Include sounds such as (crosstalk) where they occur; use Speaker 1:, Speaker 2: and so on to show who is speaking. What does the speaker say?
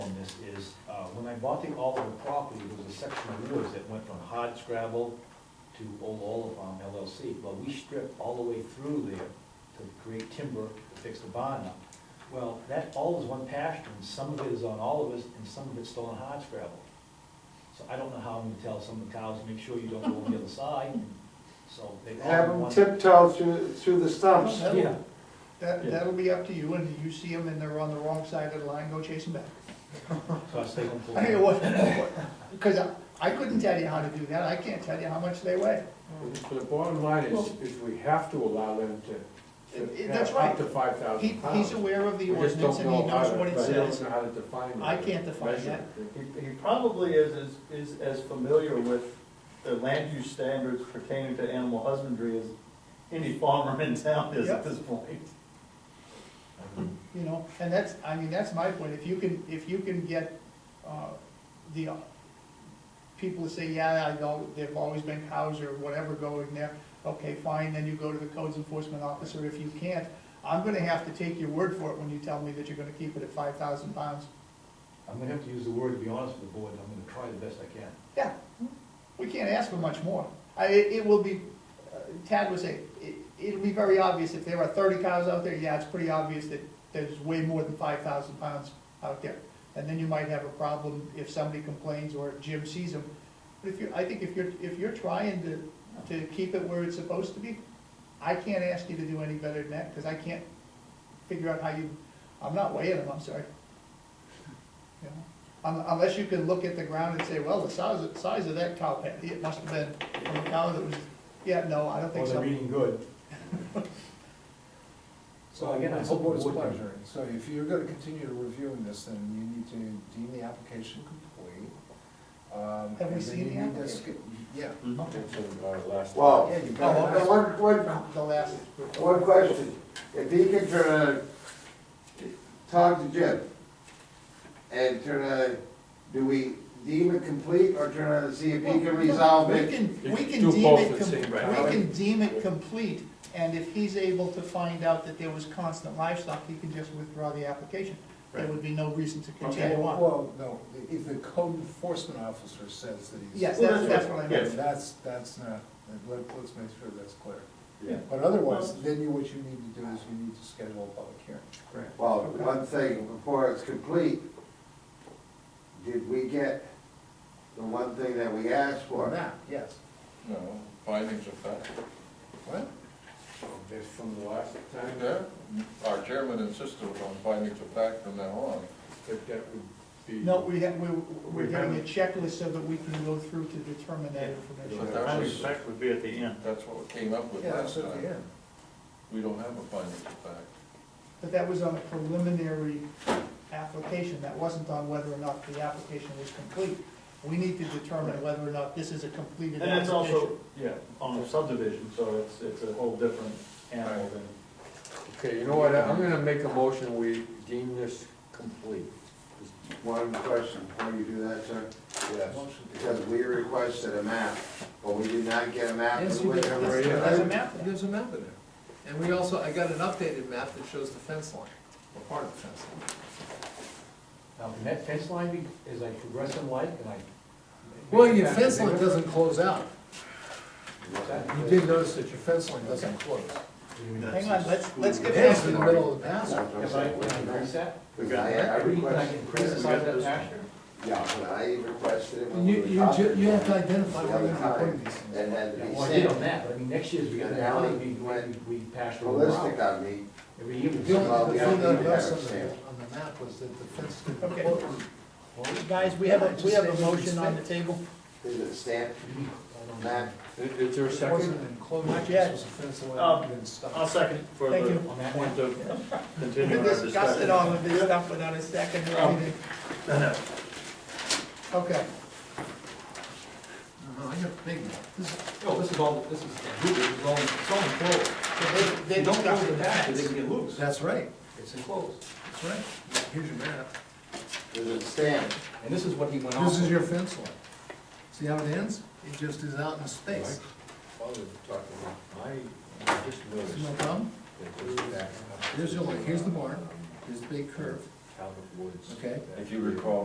Speaker 1: uh, I bought the Oliver property, there was a section of woods that went from Hard Scrabble to Old Olive Farm LLC. Well, we stripped all the way through there to create timber to fix the barn up. Well, that all is one pasture, and some of it is on Oliver's, and some of it's still on Hard Scrabble. So I don't know how I'm gonna tell some of the cows, make sure you don't go on the other side, so they all.
Speaker 2: Have them
Speaker 1: want-
Speaker 2: tiptoe through, through the stumps.
Speaker 3: That'll-
Speaker 1: Yeah.
Speaker 3: That,
Speaker 1: Yeah.
Speaker 3: that'll be up to you, and if you see them and they're on the wrong side of the line, go chase them back.
Speaker 1: So I stay on.
Speaker 3: I mean, what, because I, I couldn't tell you how to do that, I can't tell you how much they weigh.
Speaker 4: But the bottom line is, is we have to allow them to,
Speaker 3: It-
Speaker 4: to
Speaker 3: it- that's
Speaker 4: have up
Speaker 3: right.
Speaker 4: to five
Speaker 3: He,
Speaker 4: thousand
Speaker 3: he's
Speaker 4: pounds.
Speaker 3: aware of the
Speaker 4: We just
Speaker 3: ordinance
Speaker 4: don't
Speaker 3: and he
Speaker 4: know how
Speaker 3: knows
Speaker 4: to,
Speaker 3: what it
Speaker 4: but we don't
Speaker 3: says.
Speaker 4: know how to define it.
Speaker 3: I can't define
Speaker 4: measure
Speaker 3: that.
Speaker 4: it.
Speaker 5: He, he probably is, as- is as familiar with the land use standards pertaining to animal husbandry as any farmer in town is
Speaker 3: Yep.
Speaker 5: at this point.
Speaker 3: You know, and that's, I mean, that's my point, if you can, if you can get, uh, the, uh, people to say, yeah, I know, there've always been cows or whatever going there, okay, fine, then you go to the codes enforcement officer, if you can't, I'm gonna have to take your word for it when you tell me that you're gonna keep it at five thousand pounds.
Speaker 1: I'm gonna have to use the word, to be honest with the board, I'm gonna try the best I can.
Speaker 3: Yeah, we can't ask for much more. I, it it will be, uh, Tad was saying, it, it'll be very obvious, if there are thirty cows out there, yeah, it's pretty obvious that there's way more than five thousand pounds out there. And then you might have a problem if somebody complains or if Jim sees them. But if you, I think if you're, if you're trying to, to keep it where it's supposed to be, I can't ask you to do any better than that, because I can't figure out how you, I'm not weighing them, I'm sorry. You know? Un- Unless you can look at the ground and say, well, the size, of- size of that cow patty, it must have been from a cow that was, yeah, no, I don't
Speaker 1: Or
Speaker 3: think so.
Speaker 1: they're eating good. (laughs)
Speaker 6: So again, it's the board's pleasure, so if you're gonna continue reviewing this, then you need to deem the application complete. Um,
Speaker 3: Have we
Speaker 6: and then
Speaker 3: seen
Speaker 6: you
Speaker 3: the
Speaker 6: need to sk- Yeah.
Speaker 2: Well,
Speaker 6: Yeah, you better
Speaker 2: uh,
Speaker 6: ask.
Speaker 2: one, one,
Speaker 3: The last.
Speaker 2: one question. If he can turn around, talk to Jim, and turn around, do we deem it complete, or turn around and see if he can resolve
Speaker 3: We
Speaker 2: it?
Speaker 3: can,
Speaker 4: You
Speaker 3: we
Speaker 4: can
Speaker 3: can
Speaker 4: do
Speaker 3: deem
Speaker 4: both
Speaker 3: it,
Speaker 4: at the same
Speaker 3: com-
Speaker 4: time.
Speaker 3: we can deem it complete, and if he's able to find out that there was constant livestock, he can just withdraw the application. There would be no reason to continue
Speaker 6: Well,
Speaker 3: on.
Speaker 6: well, no, if the code enforcement officer says that he's.
Speaker 3: Yes, that's, that's what I
Speaker 6: Then
Speaker 3: meant.
Speaker 6: That's, that's not, let, us make sure that's clear.
Speaker 5: Yeah.
Speaker 6: But otherwise, then you, what you need to do is you need to schedule a public hearing.
Speaker 2: Well, one thing, before it's complete, did we get the one thing that we asked
Speaker 6: Or
Speaker 2: for?
Speaker 6: not, yes.
Speaker 7: No, findings of fact.
Speaker 6: What?
Speaker 4: Based from the last time,
Speaker 7: Yeah, our chairman insisted on findings of fact from now on.
Speaker 4: that that would be.
Speaker 3: No, we have, we're, we're getting a checklist so that we can go through to determine that
Speaker 7: But
Speaker 3: information.
Speaker 7: that
Speaker 5: Findings
Speaker 7: was,
Speaker 5: of fact would be at the end.
Speaker 7: that's what we came up with
Speaker 6: Yeah,
Speaker 7: last
Speaker 6: that's at the
Speaker 7: time.
Speaker 6: end.
Speaker 7: We don't have a findings of fact.
Speaker 3: But that was on a preliminary application, that wasn't on whether or not the application was complete. We need to determine whether or not this is a completed
Speaker 5: And
Speaker 3: application.
Speaker 5: that's also, yeah, on a subdivision, so it's, it's a whole different animal than.
Speaker 4: Okay, you know what, I'm gonna make a motion, we deem this complete.
Speaker 2: One question before you do that, sir.
Speaker 6: Yes.
Speaker 2: Because we requested a map, but we did not get a map.
Speaker 6: Yes,
Speaker 2: of
Speaker 6: you
Speaker 2: which
Speaker 6: did.
Speaker 2: area.
Speaker 4: Yeah.
Speaker 3: There's a map there.
Speaker 6: There's a map in there. And we also, I got an updated map that shows the fence line, or part of the fence line.
Speaker 1: Now, can that fence line be, as I progress in life, can I?
Speaker 6: Well, your fence line doesn't close out. You
Speaker 1: Exactly.
Speaker 6: did notice that your fence line doesn't close.
Speaker 3: Hang on, let's, let's get
Speaker 6: It's
Speaker 3: past
Speaker 6: in the
Speaker 3: it.
Speaker 6: middle of the pasture.
Speaker 2: That's what I'm
Speaker 1: If I,
Speaker 2: saying.
Speaker 1: can I increase that?
Speaker 2: Because I, I
Speaker 1: Can I
Speaker 2: requested,
Speaker 1: increase the size of that pasture?
Speaker 2: yeah, but I requested it when
Speaker 6: You,
Speaker 2: we were
Speaker 6: you, ju-
Speaker 2: talking
Speaker 6: you have to
Speaker 2: about it
Speaker 6: identify where you're gonna be putting these
Speaker 2: The other
Speaker 6: things.
Speaker 2: time, and had to
Speaker 1: Yeah,
Speaker 2: be
Speaker 1: Well, I did on
Speaker 2: sent
Speaker 1: that, but I mean, next year's we got an alley, we, we we pasture over.
Speaker 2: ballistic on me.
Speaker 1: Every year. we-
Speaker 6: The only, the
Speaker 2: Well,
Speaker 6: thing
Speaker 2: we
Speaker 6: that I
Speaker 2: have to
Speaker 6: noticed on the,
Speaker 2: understand.
Speaker 6: on the map was that the fence didn't
Speaker 3: Okay.
Speaker 6: close.
Speaker 3: Guys, we have, a we have a motion on the table.
Speaker 2: Is it stamped, Matt?
Speaker 4: Is is there a
Speaker 6: It
Speaker 4: second?
Speaker 6: wasn't enclosed,
Speaker 3: Not
Speaker 6: this
Speaker 3: yet.
Speaker 6: was a fence line,
Speaker 5: Um,
Speaker 6: and then
Speaker 5: I'll
Speaker 6: stopped.
Speaker 5: second for
Speaker 3: Thank
Speaker 5: the
Speaker 3: you.
Speaker 1: On that one.
Speaker 5: point of continuing
Speaker 3: We
Speaker 5: our
Speaker 3: discussed
Speaker 5: discussion.
Speaker 3: it all of this stuff without a second or anything. Okay,
Speaker 6: No, I got a big map. This is-
Speaker 8: No, this is all, this is, this is all, it's all enclosed.
Speaker 3: so they, they
Speaker 8: They don't
Speaker 3: discussed
Speaker 8: close the
Speaker 3: the
Speaker 8: back, they
Speaker 3: facts.
Speaker 8: can get loose.
Speaker 6: That's right,
Speaker 8: It's enclosed.
Speaker 6: that's right. Here's your map.
Speaker 2: Is it stamped?
Speaker 8: And this is what he went off.
Speaker 6: This is
Speaker 8: of.
Speaker 6: your fence line. See how it ends? It just is out in space.
Speaker 7: I just noticed
Speaker 6: No problem?
Speaker 7: that
Speaker 6: Here's your, here's the barn, here's the big curve,
Speaker 7: Talbot Woods.
Speaker 6: okay?
Speaker 7: If you recall,